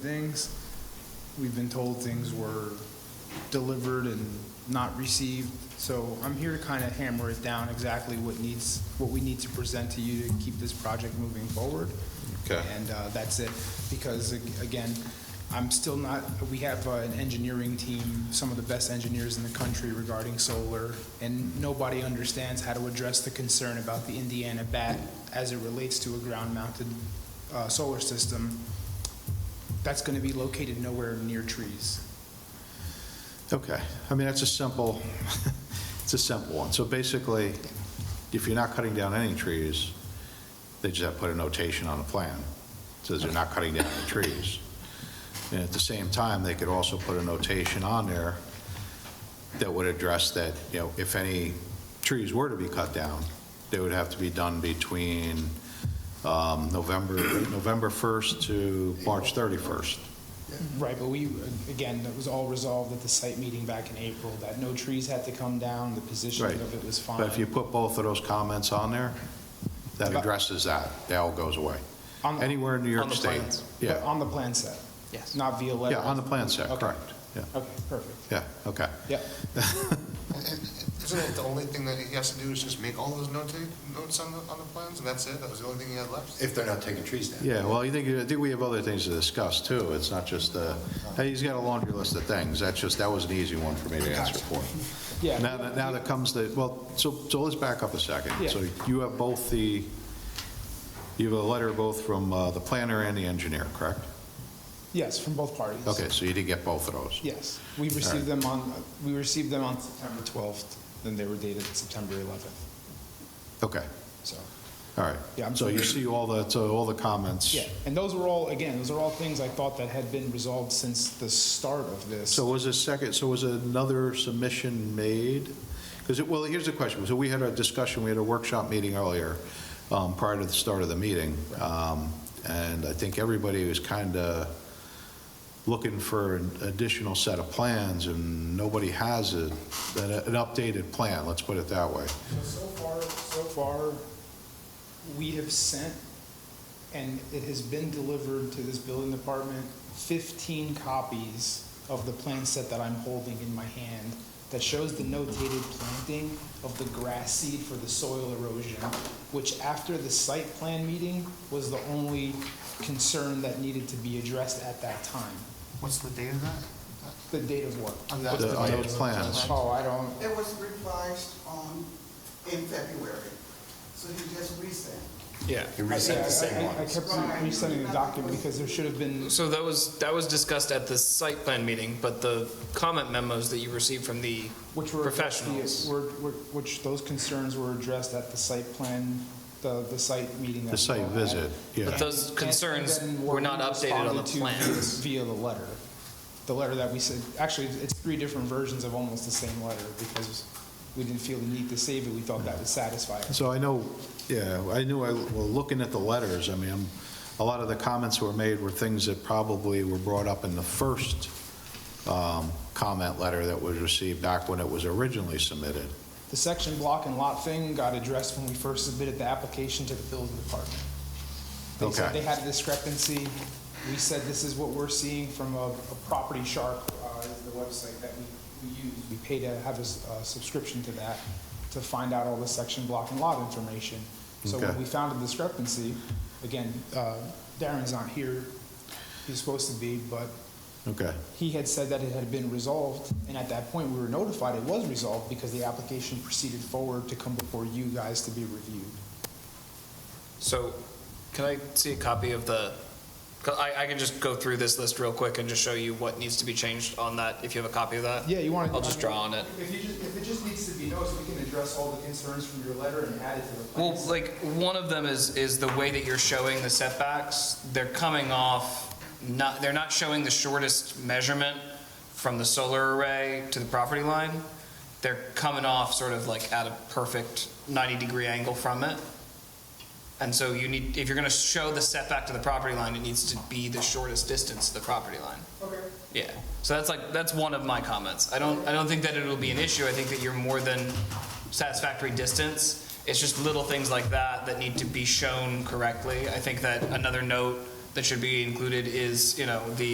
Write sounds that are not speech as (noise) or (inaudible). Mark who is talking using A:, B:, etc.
A: things. We've been told things were delivered and not received, so I'm here to kind of hammer it down exactly what needs, what we need to present to you to keep this project moving forward.
B: Okay.
A: And uh, that's it, because ag- again, I'm still not, we have uh, an engineering team, some of the best engineers in the country regarding solar, and nobody understands how to address the concern about the Indiana bat as it relates to a ground-mounted uh, solar system that's going to be located nowhere near trees.
B: Okay, I mean, that's a simple, (laughs) it's a simple one. So basically, if you're not cutting down any trees, they just have to put a notation on the plan. Says they're not cutting down any trees. And at the same time, they could also put a notation on there that would address that, you know, if any trees were to be cut down, they would have to be done between um, November, November 1st to March 31st. Mm-hmm.
A: Right, but we, again, that was all resolved at the site meeting back in April, that no trees had to come down, the positioning
B: Right.
A: of it was fine.
B: But if you put both of those comments on there, that addresses that, that all goes away.
A: On the-
B: Anywhere in New
C: on
B: York
C: the
B: State.
C: plans.
A: But
B: Yeah,
A: On the plan set?
C: Yes.
A: Not via letter?
B: yeah, on the plan set,
A: Okay.
B: correct. Yeah,
A: Okay, perfect.
B: yeah, okay.
A: Yeah,
D: Isn't it the only thing that he has to do is just make all those nota- notes on the, on the plans, and that's it? That was the only thing he had left?
E: If they're not taking trees down.
B: Yeah, well, I think, I think we have other things to discuss, too. It's not just, uh, hey, he's got a laundry list of things. That's just, that was an easy one for me to answer for.
A: yeah.
B: Now, that- now that comes the, well, so, so let's back up a second.
A: Yeah.
B: So you have both the, you have a letter both from uh, the planner and the engineer, correct?
A: Yes, from both parties.
B: Okay, so you did get both of those?
A: Yes, we received them on, we received them on September 12th, then they were dated September 11th,
B: Okay.
A: so.
B: All right.
A: Yeah, I'm
B: So you see all the, so all the comments.
A: Yeah, and those were all, again, those are all things I thought that had been resolved since the start of this.
B: So was a second, so was another submission made? Because, it well, here's the question. So we had a discussion, we had a workshop meeting earlier, um, prior to the start of the meeting. Um, And I think everybody was kind of looking for an additional set of plans, and nobody has a, an an updated plan, let's put it that way.
A: So so far, so far, we have sent, and it has been delivered to this building department, 15 copies of the plan set that I'm holding in my hand that shows the notated planting of the grass seed for the soil erosion, which after the site plan meeting was the only concern that needed to be addressed at that time.
D: What's the date of that?
A: The date of what?
D: On that-
B: The- on those plans.
A: Oh, I don't,
F: It was revised on, in February, so he just resent.
C: Yeah.
E: You reset
A: I- I-
E: the same
A: I- I
E: ones.
A: kept re- resending the document because there should have been
C: So that was, that was discussed at the site plan meeting, but the comment memos that you received from the
A: Which were. addressed via-
C: Professionals.
A: were- were- Which, those concerns were addressed at the site plan, the, the site meeting. that
B: The
A: we
B: site
A: all had.
B: visit, yeah.
C: But those
A: And- and
C: concerns
A: then
C: were not updated on the
A: responded to
C: plans.
A: Via the letter, the letter that we said, actually, it's three different versions of almost the same letter because we didn't feel the need to save it, we thought that would satisfy us.
B: So I know, yeah, I knew, I, well, looking at the letters, I mean, a lot of the comments that were made were things that probably were brought up in the first um, comment letter that was received back when it was originally submitted.
A: The section block and lot thing got addressed when we first submitted the application to the building department. They said
B: Okay.
A: they had a discrepancy. We said this is what we're seeing from a, a property shark, uh, is the website that we, we use. We pay to have a, s- a subscription to that to find out all the section block and lot information. So when
B: Okay.
A: we found a discrepancy, again, uh, Darren's not here. He's supposed to be, but
B: Okay,
A: he had said that it had been resolved, and at that point, we were notified it was resolved because the application proceeded forward to come before you guys to be reviewed.
C: So can I see a copy of the, 'cause I, I can just go through this list real quick and just show you what needs to be changed on that, if you have a copy of that?
A: Yeah, you want to.
C: I'll just draw on it.
A: If you just, if it just needs to be noticed, we can address all the concerns from your letter and add it to the
C: Well,
A: plans.
C: like, one of them is, is the way that you're showing the setbacks. They're coming off, not, they're not showing the shortest measurement from the solar array to the property line. They're coming off sort of like at a perfect 90-degree angle from it. And so you need, if you're going to show the setback to the property line, it needs to be the shortest distance to the property line.
A: Okay.
C: Yeah, so that's like, that's one of my comments. I don't, I don't think that it'll be an issue. I think that you're more than satisfactory distance. It's just little things like that that need to be shown correctly. I think that another note that should be included is, you know, the